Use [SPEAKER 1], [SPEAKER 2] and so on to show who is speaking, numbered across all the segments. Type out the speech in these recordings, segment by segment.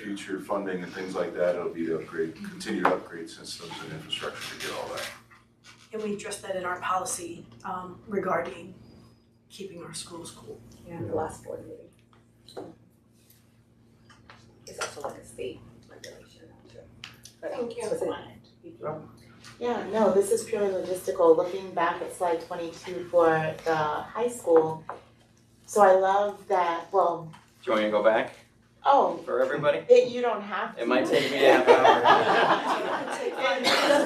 [SPEAKER 1] future funding and things like that, it'll be to upgrade, continue to upgrade systems and infrastructure to get all that.
[SPEAKER 2] And we addressed that in our policy um regarding keeping our schools cool.
[SPEAKER 3] Yeah, the last board meeting. It's also like a state regulation too. But
[SPEAKER 4] Thank you.
[SPEAKER 3] so it's a-
[SPEAKER 5] Yeah, no, this is purely logistical, looking back at slide twenty-two for the high school. So I love that, well,
[SPEAKER 6] Do you want me to go back
[SPEAKER 5] oh,
[SPEAKER 6] for everybody?
[SPEAKER 5] it, you don't have to.
[SPEAKER 6] It might take me a half hour.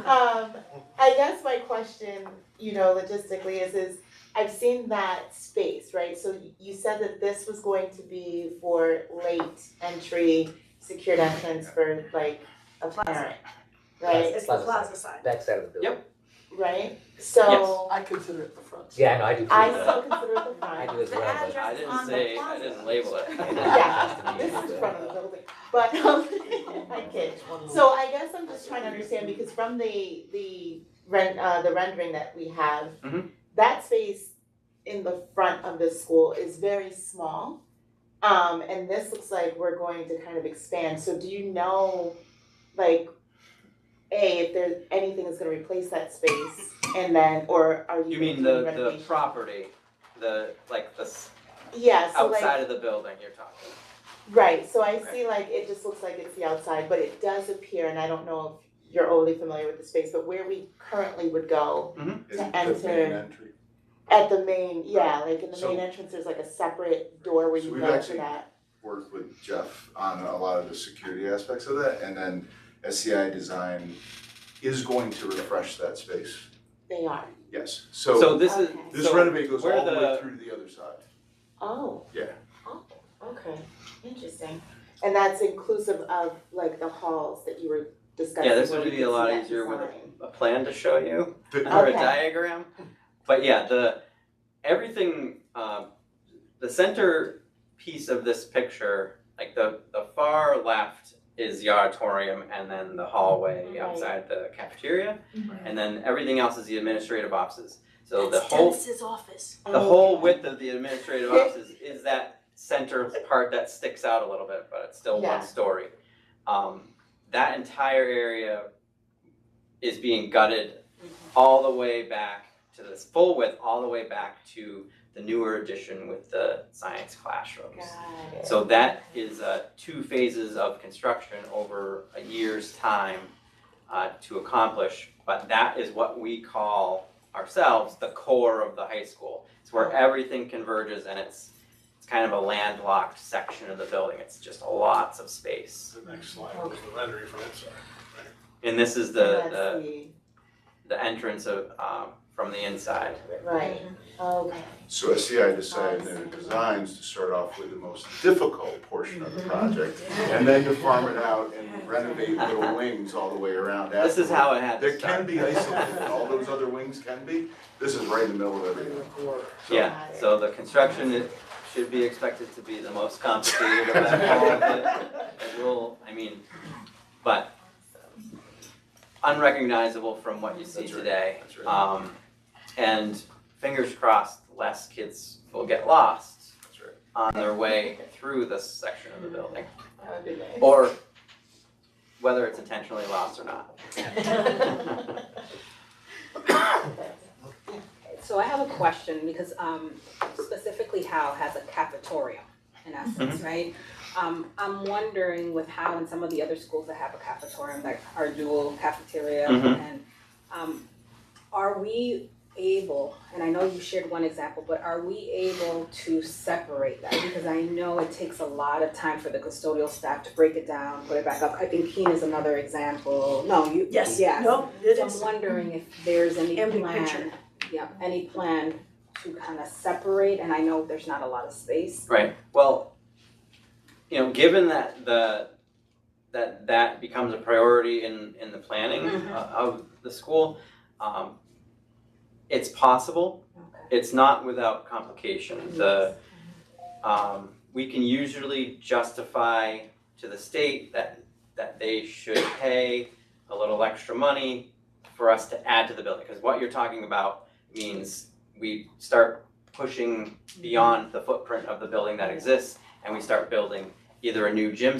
[SPEAKER 5] Um, I guess my question, you know, logistically is, is I've seen that space, right? So you said that this was going to be for late entry, secured entrance for like a parent, right?
[SPEAKER 2] It's the plaza side.
[SPEAKER 7] backside of the building.
[SPEAKER 5] Right? So
[SPEAKER 8] I consider it the front.
[SPEAKER 7] Yeah, I know, I do too.
[SPEAKER 5] I still consider it the
[SPEAKER 7] I
[SPEAKER 5] front.
[SPEAKER 7] do as
[SPEAKER 2] The
[SPEAKER 7] well, but.
[SPEAKER 2] address
[SPEAKER 6] I
[SPEAKER 2] on the
[SPEAKER 6] didn't say, I
[SPEAKER 2] plaza.
[SPEAKER 6] didn't label it.
[SPEAKER 5] Yeah, This is front of the building, but um, I kid. So I guess I'm just trying to understand because from the the rent uh the rendering that we have,
[SPEAKER 6] Mhm.
[SPEAKER 5] that space in the front of the school is very small. Um and this looks like we're going to kind of expand. So do you know like A, if there's anything that's gonna replace that space and then or are you
[SPEAKER 6] You
[SPEAKER 5] doing
[SPEAKER 6] mean the, the
[SPEAKER 5] renovation?
[SPEAKER 6] property, the, like, the s-
[SPEAKER 5] Yeah, so like
[SPEAKER 6] outside of the building you're talking?
[SPEAKER 5] Right, so I
[SPEAKER 6] Okay.
[SPEAKER 5] see like, it just looks like it's the outside, but it does appear, and I don't know if you're overly familiar with the space, but where we currently would go
[SPEAKER 1] Is it
[SPEAKER 5] enter-
[SPEAKER 1] the main entry?
[SPEAKER 5] at the main, yeah, like in the
[SPEAKER 1] So-
[SPEAKER 5] main entrance, there's like a separate door where
[SPEAKER 1] So
[SPEAKER 5] you
[SPEAKER 1] we've
[SPEAKER 5] go for
[SPEAKER 1] actually-
[SPEAKER 5] that.
[SPEAKER 1] worked with Jeff on a lot of the security aspects of that, and then SCI Design is going to refresh that space,
[SPEAKER 5] They are,
[SPEAKER 1] yes. So
[SPEAKER 6] So this is,
[SPEAKER 5] Okay.
[SPEAKER 1] this
[SPEAKER 6] so-
[SPEAKER 1] renovate goes
[SPEAKER 6] where
[SPEAKER 1] all the way
[SPEAKER 6] the-
[SPEAKER 1] through to the other side.
[SPEAKER 5] oh.
[SPEAKER 1] Yeah.
[SPEAKER 5] Oh, okay, interesting. And that's inclusive of like the halls that you were discussing.
[SPEAKER 6] Yeah, this
[SPEAKER 5] where
[SPEAKER 6] would
[SPEAKER 5] we
[SPEAKER 6] be
[SPEAKER 5] could
[SPEAKER 6] a
[SPEAKER 5] see
[SPEAKER 6] lot
[SPEAKER 5] that
[SPEAKER 6] easier with
[SPEAKER 5] design.
[SPEAKER 6] a plan to show you
[SPEAKER 1] The-
[SPEAKER 6] or a
[SPEAKER 5] Okay.
[SPEAKER 6] diagram. But yeah, the, everything, um, the center piece of this picture, like the, the far left is the auditorium and then the hallway
[SPEAKER 5] Right.
[SPEAKER 6] outside the cafeteria.
[SPEAKER 5] Mhm.
[SPEAKER 6] And then everything else is the administrative offices. So the
[SPEAKER 2] That's
[SPEAKER 6] whole
[SPEAKER 2] Dennis's office.
[SPEAKER 6] the
[SPEAKER 5] Oh.
[SPEAKER 6] whole
[SPEAKER 5] Okay.
[SPEAKER 6] width of the administrative offices is that center part that sticks out a little bit, but it's still
[SPEAKER 5] Yeah.
[SPEAKER 6] one story. Um, that entire area is being gutted all the way back to this full width, all the way back to the newer addition with the science classrooms.
[SPEAKER 5] Got it.
[SPEAKER 6] So that is uh two phases of construction over a year's time uh to accomplish. But that is what we call ourselves the core of the high school. It's where everything converges and it's it's kind of a landlocked section of the building. It's just lots of space.
[SPEAKER 9] The next slide was the rendering from inside.
[SPEAKER 6] And this is the
[SPEAKER 5] That's
[SPEAKER 6] the the entrance of um from the inside.
[SPEAKER 5] Right,
[SPEAKER 1] Mm-hmm.
[SPEAKER 5] okay.
[SPEAKER 1] So SCI decided in their designs to start off with the most difficult portion of the project, and then to farm it out and renovate little wings all the way around
[SPEAKER 6] This is how it had to
[SPEAKER 1] There can
[SPEAKER 6] start.
[SPEAKER 1] be isolated, all those other wings can be, this is right in the middle of everything. So-
[SPEAKER 6] Yeah, so the construction it should be expected to be the most complicated of all of it. It will, I mean, but unrecognizable from what you see
[SPEAKER 1] That's right.
[SPEAKER 6] today.
[SPEAKER 1] That's right.
[SPEAKER 6] Um, and fingers crossed, less kids will get lost
[SPEAKER 1] That's right.
[SPEAKER 6] on their way through this section of the building.
[SPEAKER 5] That would be nice.
[SPEAKER 6] Or whether it's intentionally lost or not.
[SPEAKER 3] So I have a question because um specifically Howe has a cafeteria in essence, right? Um I'm wondering with Howe and some of the other schools that have a cafeteria, like our dual cafeteria
[SPEAKER 6] Mhm.
[SPEAKER 3] and um are we able, and I know you shared one example, but are we able to separate that? Because I know it takes a lot of time for the custodial staff to break it down, put it back up. I think Keen is another example. No, you,
[SPEAKER 2] Yes,
[SPEAKER 3] yes.
[SPEAKER 2] no, it
[SPEAKER 3] So
[SPEAKER 2] is.
[SPEAKER 3] I'm wondering if there's any
[SPEAKER 2] And big picture.
[SPEAKER 3] plan, yeah, any plan to kind of separate, and I know there's not a lot of space.
[SPEAKER 6] Right, well, you know, given that the, that that becomes a priority in, in the planning
[SPEAKER 3] Mhm.
[SPEAKER 6] uh, of the school, um, it's possible,
[SPEAKER 3] Okay.
[SPEAKER 6] it's not without complication, the, um, we can usually justify to the state that, that they should pay a little extra money for us to add to the building, because what you're talking about means we start pushing beyond the footprint of the building that exists, and we start building either a new gym